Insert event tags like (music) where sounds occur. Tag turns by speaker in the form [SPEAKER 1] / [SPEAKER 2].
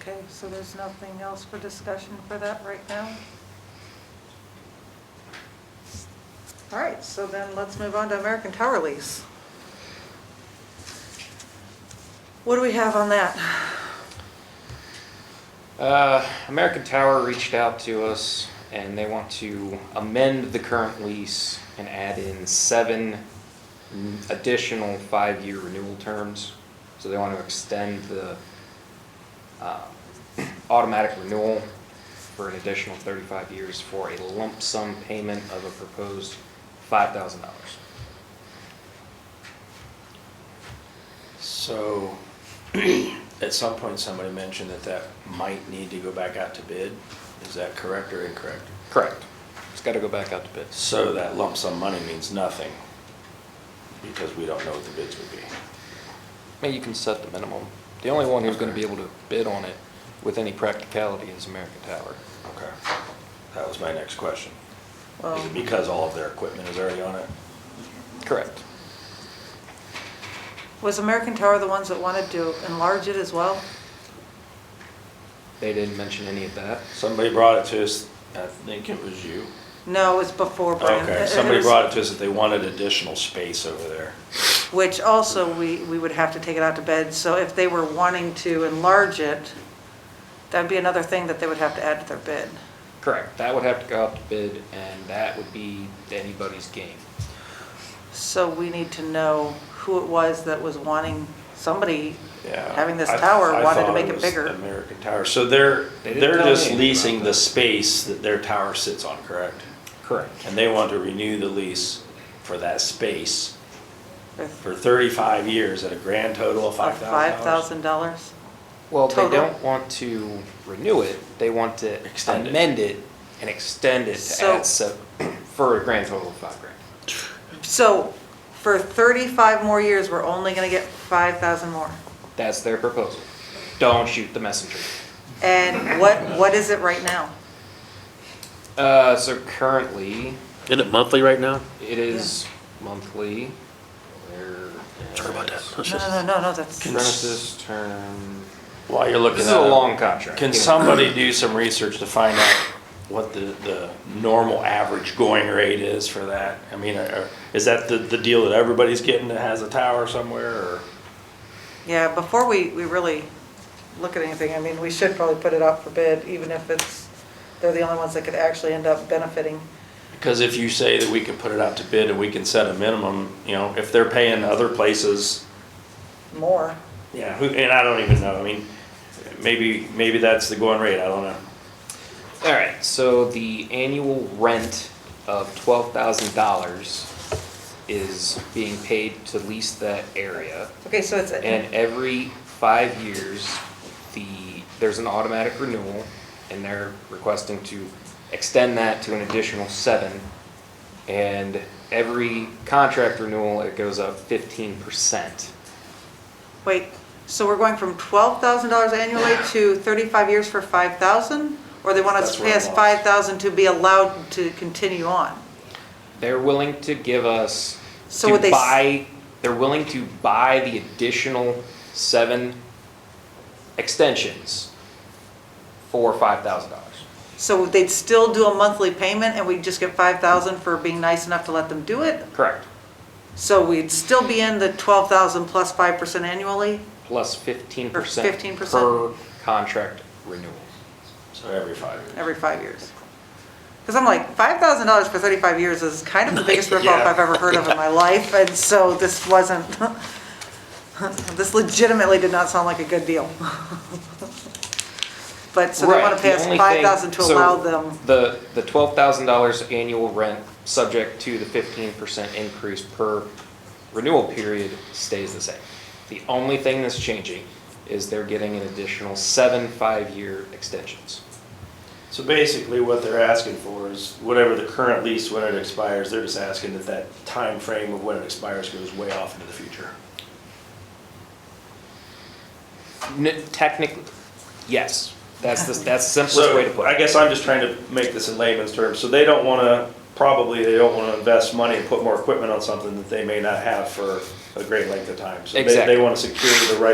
[SPEAKER 1] Okay, so there's nothing else for discussion for that right now? All right, so then let's move on to American Tower lease. What do we have on that?
[SPEAKER 2] Uh, American Tower reached out to us and they want to amend the current lease and add in seven n- additional five-year renewal terms. So they want to extend the uh, automatic renewal for an additional 35 years for a lump sum payment of a proposed $5,000.
[SPEAKER 3] So, (clears throat) at some point, somebody mentioned that that might need to go back out to bid. Is that correct or incorrect?
[SPEAKER 2] Correct. It's got to go back out to bid.
[SPEAKER 3] So that lump sum money means nothing because we don't know what the bids would be.
[SPEAKER 2] I mean, you can set the minimum. The only one who's going to be able to bid on it with any practicality is American Tower.
[SPEAKER 3] Okay. That was my next question.
[SPEAKER 1] Well,
[SPEAKER 3] Is it because all of their equipment is already on it?
[SPEAKER 2] Correct.
[SPEAKER 1] Was American Tower the ones that wanted to enlarge it as well?
[SPEAKER 2] They didn't mention any of that.
[SPEAKER 3] Somebody brought it to us, I think it was you.
[SPEAKER 1] No, it was before Brandon.
[SPEAKER 3] Okay, somebody brought it to us that they wanted additional space over there.
[SPEAKER 1] Which also, we, we would have to take it out to bed, so if they were wanting to enlarge it, that'd be another thing that they would have to add to their bid.
[SPEAKER 2] Correct. That would have to go out to bid, and that would be anybody's game.
[SPEAKER 1] So we need to know who it was that was wanting, somebody
[SPEAKER 3] Yeah.
[SPEAKER 1] having this
[SPEAKER 3] I-
[SPEAKER 1] tower
[SPEAKER 3] I
[SPEAKER 1] wanted to
[SPEAKER 3] thought
[SPEAKER 1] make it
[SPEAKER 3] was
[SPEAKER 1] bigger.
[SPEAKER 3] American Tower. So they're,
[SPEAKER 2] They didn't
[SPEAKER 3] they're
[SPEAKER 2] tell me
[SPEAKER 3] just
[SPEAKER 2] anything
[SPEAKER 3] leasing
[SPEAKER 2] about
[SPEAKER 3] the
[SPEAKER 2] that.
[SPEAKER 3] space that their tower sits on, correct?
[SPEAKER 2] Correct.
[SPEAKER 3] And they want to renew the lease for that space
[SPEAKER 1] with
[SPEAKER 3] for thirty-five years at a grand total of five thousand dollars.
[SPEAKER 1] $5,000.
[SPEAKER 2] Well, they
[SPEAKER 1] Total.
[SPEAKER 2] don't want to renew it. They want to
[SPEAKER 3] Extend it.
[SPEAKER 2] amend it and extend it to
[SPEAKER 1] So-
[SPEAKER 2] add sub, (clears throat) for a grand total of five grand.
[SPEAKER 1] So for 35 more years, we're only going to get 5,000 more.
[SPEAKER 2] That's their proposal. Don't shoot the messenger.
[SPEAKER 1] And what, what is it right now?
[SPEAKER 2] Uh, so currently,
[SPEAKER 4] Isn't it monthly right now?
[SPEAKER 2] it is monthly. There
[SPEAKER 4] Sorry about that.
[SPEAKER 2] is-
[SPEAKER 4] Let's
[SPEAKER 1] No,
[SPEAKER 4] just-
[SPEAKER 1] no, no, no, that's,
[SPEAKER 2] Premises term.
[SPEAKER 3] While you're looking
[SPEAKER 2] This
[SPEAKER 3] at
[SPEAKER 2] is a long
[SPEAKER 3] it,
[SPEAKER 2] contract.
[SPEAKER 3] can somebody do some research to find out what the, the normal average going rate is for that? I mean, are- are- is that the, the deal that everybody's getting that has a tower somewhere or?
[SPEAKER 1] yeah, before we, we really look at anything, I mean, we should probably put it out for bid, even if it's, they're the only ones that could actually end up benefiting.
[SPEAKER 3] Because if you say that we can put it out to bid and we can set a minimum, you know, if they're paying other places,
[SPEAKER 1] more.
[SPEAKER 3] yeah, who, and I don't even know, I mean, maybe, maybe that's the going rate, I don't know.
[SPEAKER 2] All right, so the annual rent of twelve thousand dollars is being paid to lease that area.
[SPEAKER 1] Okay, so it's,
[SPEAKER 2] And every five years, the, there's an automatic renewal, and they're requesting to extend that to an additional seven. And every contract renewal, it goes up fifteen percent.
[SPEAKER 1] wait, so we're going from twelve thousand dollars annually to thirty-five years for five thousand? Or they want us
[SPEAKER 3] That's
[SPEAKER 1] to
[SPEAKER 3] where
[SPEAKER 1] pay
[SPEAKER 3] I'm
[SPEAKER 1] us
[SPEAKER 3] lost.
[SPEAKER 1] five thousand to be allowed to continue on?
[SPEAKER 2] They're willing to give us,
[SPEAKER 1] So
[SPEAKER 2] to
[SPEAKER 1] would they s-
[SPEAKER 2] buy, they're willing to buy the additional seven extensions for five thousand dollars.
[SPEAKER 1] So they'd still do a monthly payment and we'd just get five thousand for being nice enough to let them do it?
[SPEAKER 2] Correct.
[SPEAKER 1] So we'd still be in the twelve thousand plus five percent annually?
[SPEAKER 2] Plus fifteen
[SPEAKER 1] Or
[SPEAKER 2] percent.
[SPEAKER 1] 15%.
[SPEAKER 2] Per contract renewal.
[SPEAKER 3] So every five years.
[SPEAKER 1] every five years. Because I'm like, five thousand dollars for thirty-five years is kind of the
[SPEAKER 2] (laughs)
[SPEAKER 1] biggest ripoff
[SPEAKER 3] Yeah.
[SPEAKER 1] I've ever heard of in my life, and so this wasn't, (laughs) this legitimately did not sound like a good deal. (laughs) But, so they want
[SPEAKER 2] Right,
[SPEAKER 1] to pay
[SPEAKER 2] the
[SPEAKER 1] us
[SPEAKER 2] only
[SPEAKER 1] five
[SPEAKER 2] thing-
[SPEAKER 1] thousand to
[SPEAKER 2] so
[SPEAKER 1] allow them,
[SPEAKER 2] The, the twelve thousand dollars annual rent, subject to the fifteen percent increase per renewal period, stays the same. The only thing that's changing is they're getting an additional seven five-year extensions.
[SPEAKER 3] So basically what they're asking for is whatever the current lease, when it expires, they're just asking that that time frame of when it expires goes way off into the future.
[SPEAKER 2] N- Technically, yes, that's the, that's the simplest way to
[SPEAKER 3] So
[SPEAKER 2] put
[SPEAKER 3] I
[SPEAKER 2] it.
[SPEAKER 3] guess I'm just trying to make this in layman's terms, so they don't wanna, probably they don't wanna invest money and put more equipment on something that they may not have for a great length of time. So they,
[SPEAKER 2] Exactly.
[SPEAKER 3] they wanna secure the right